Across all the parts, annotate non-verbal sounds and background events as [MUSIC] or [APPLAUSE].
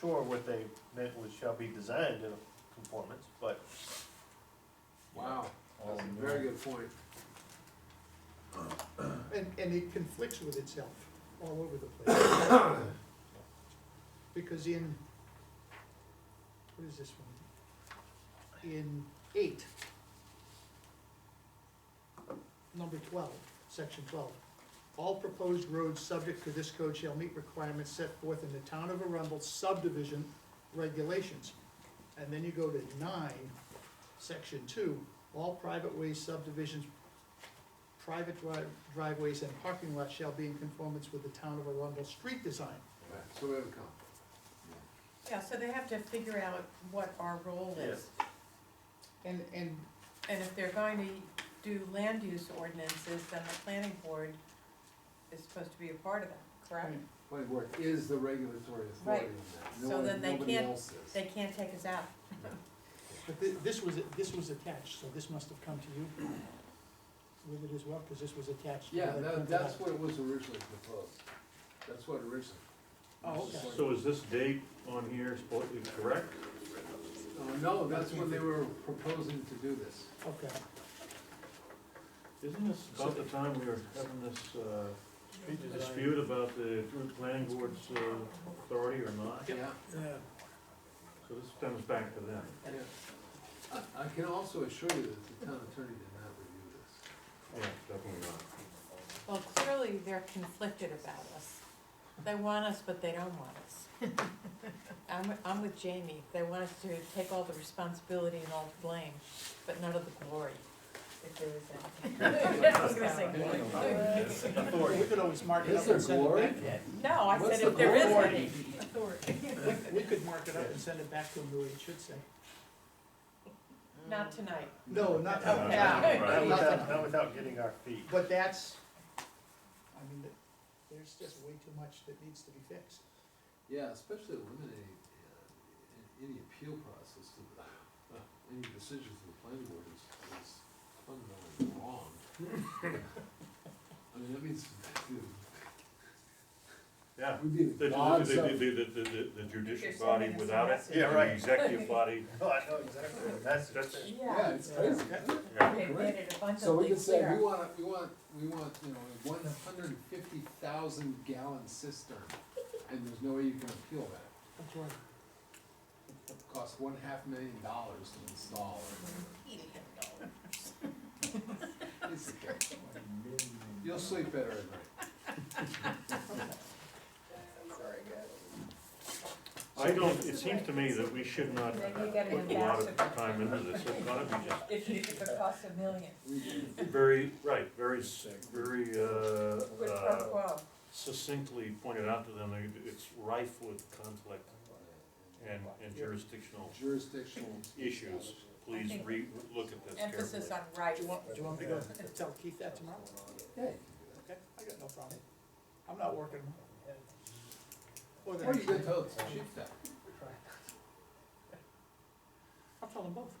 sure what they meant was shall be designed in conformance, but Wow, Oh, that's a Um, very good point. And, and it conflicts with itself all over the place. Because in, what is this one? In eight, number twelve, section twelve. All proposed roads subject to this code shall meet requirements set forth in the town of Arundel subdivision regulations. And then you go to nine, section two, all private way subdivisions private dri- driveways and parking lots shall be in conformance with the town of Arundel street design. So we have a conflict. Yeah, so they have to figure out what our role is. And, and, and if they're going to do land use ordinances, then the planning board is supposed to be a part of that, correct? Right. Planning board is the regulatory authority in that. No So one- then they Nobody can't- else is. They can't take us out. But thi- this was, this was attached, so this must have come to you with it as well, because this was attached. to Yeah, the that, printed that's out. what was originally proposed. That's what originally. Oh, okay. So is this date on here supposedly correct? Uh, No, that's when they were proposing to do this. Okay, Isn't this about the time we were having this uh, street design. dispute about the through planning board's uh, authority or not? Yeah. yeah. So this stems back to them. yeah. I, I can also assure you that the town attorney did not review this. Yeah, definitely not. Well, clearly, they're conflicted about us. They want us, but they don't want us. I'm, I'm with Jamie, they want us to take all the responsibility and all the blame, but none of the glory, if there is any. I was gonna say glory. Well, We could always mark it Is up there and send it back. glory? No, I What's said the if there is glory? any. Authority. We- We could mark it up and send it back to him the way it should say. Not tonight. No, not, No, yeah, right. Not Nothing. without, not without getting our feet. but that's, I mean, th- there's just way too much that needs to be fixed. Yeah, especially eliminating, uh, any appeal process to the, [LAUGHS] uh, any decisions of the planning board is, is fundamentally wrong. [LAUGHS] I mean, that means, Yeah. we'd be The the gods the- of, the- the- the- the You're judicial body sending us a without it. message. Yeah, right. The executive [LAUGHS] body. No, I know exactly what that's. That's- yeah, it's crazy. isn't it? They made it So we abundantly can say, clear. we want, we want, we want, you know, a one hundred and fifty thousand gallon cistern, and there's no way you can appeal that. That's right. It costs one half million dollars to install, or it's, you'll sleep better at night. I don't, it seems to me that we should not Maybe you get an put a lot of ambassador. time into this. It's gotta be just If you, if it costs a million, very, right, very, s- very, uh, quid pro uh, quo. succinctly pointed out to them, that it's rife with conflict and and jurisdictional Jurisdictional. issues. I Please think re, look at this carefully. Emphasis on right. Do you want, do you want me to go tell Keith that tomorrow? Yeah. Okay, I got no problem. I'm not working. Or the Or you next could day. tell it's chief that. I'll tell them both,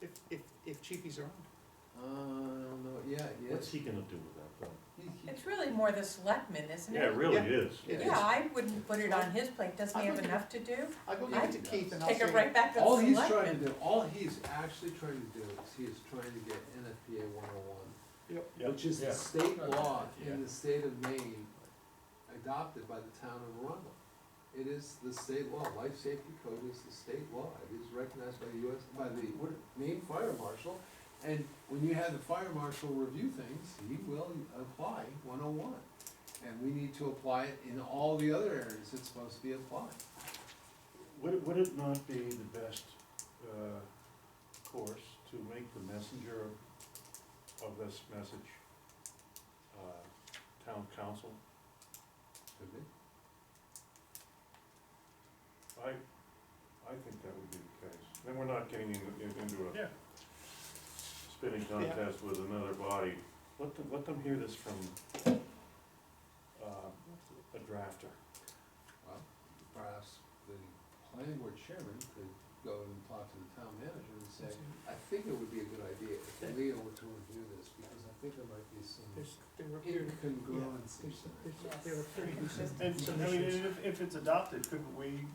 if, if, if Chiefy's around. Uh, no, yeah, yeah. What's he gonna do with that though? He- he- It's really more the selectmen, isn't it? Yeah, it really Yeah. is. Yeah. Yeah, I wouldn't put it on his plate, doesn't he have enough to do? I'll go give it to Yeah. Keith and I'll say. Take it right back to the All he's trying selectmen. to do, all he's actually trying to do is he is trying to get NFPA one oh Yep. Yeah. one, which is Yeah. the state law Yeah. in the state of Maine adopted by the town of Arundel. It is the state law, life safety code is the state law, it is recognized by the US, by the Maine Fire Marshal. And when you have the fire marshal review things, he will apply one oh one. And we need to apply it in all the other areas it's supposed to be applied. Would, it- would it not be the best, uh, course to make the messenger of this message, uh, town council? Could be. I, I think that would be the case. Then we're not getting in- in- into a Yeah. spinning contest with another body. Let them, let them hear this from, uh, a drafter. Well, perhaps the planning board chairman could go and talk to the town manager and say, I think it would be a good idea if Leo were to review this, because I think there might be some There's, there were, there's, incongruencies. there." [LAUGHS] there were pretty consistent. And, I mean, if, if it's adopted, couldn't we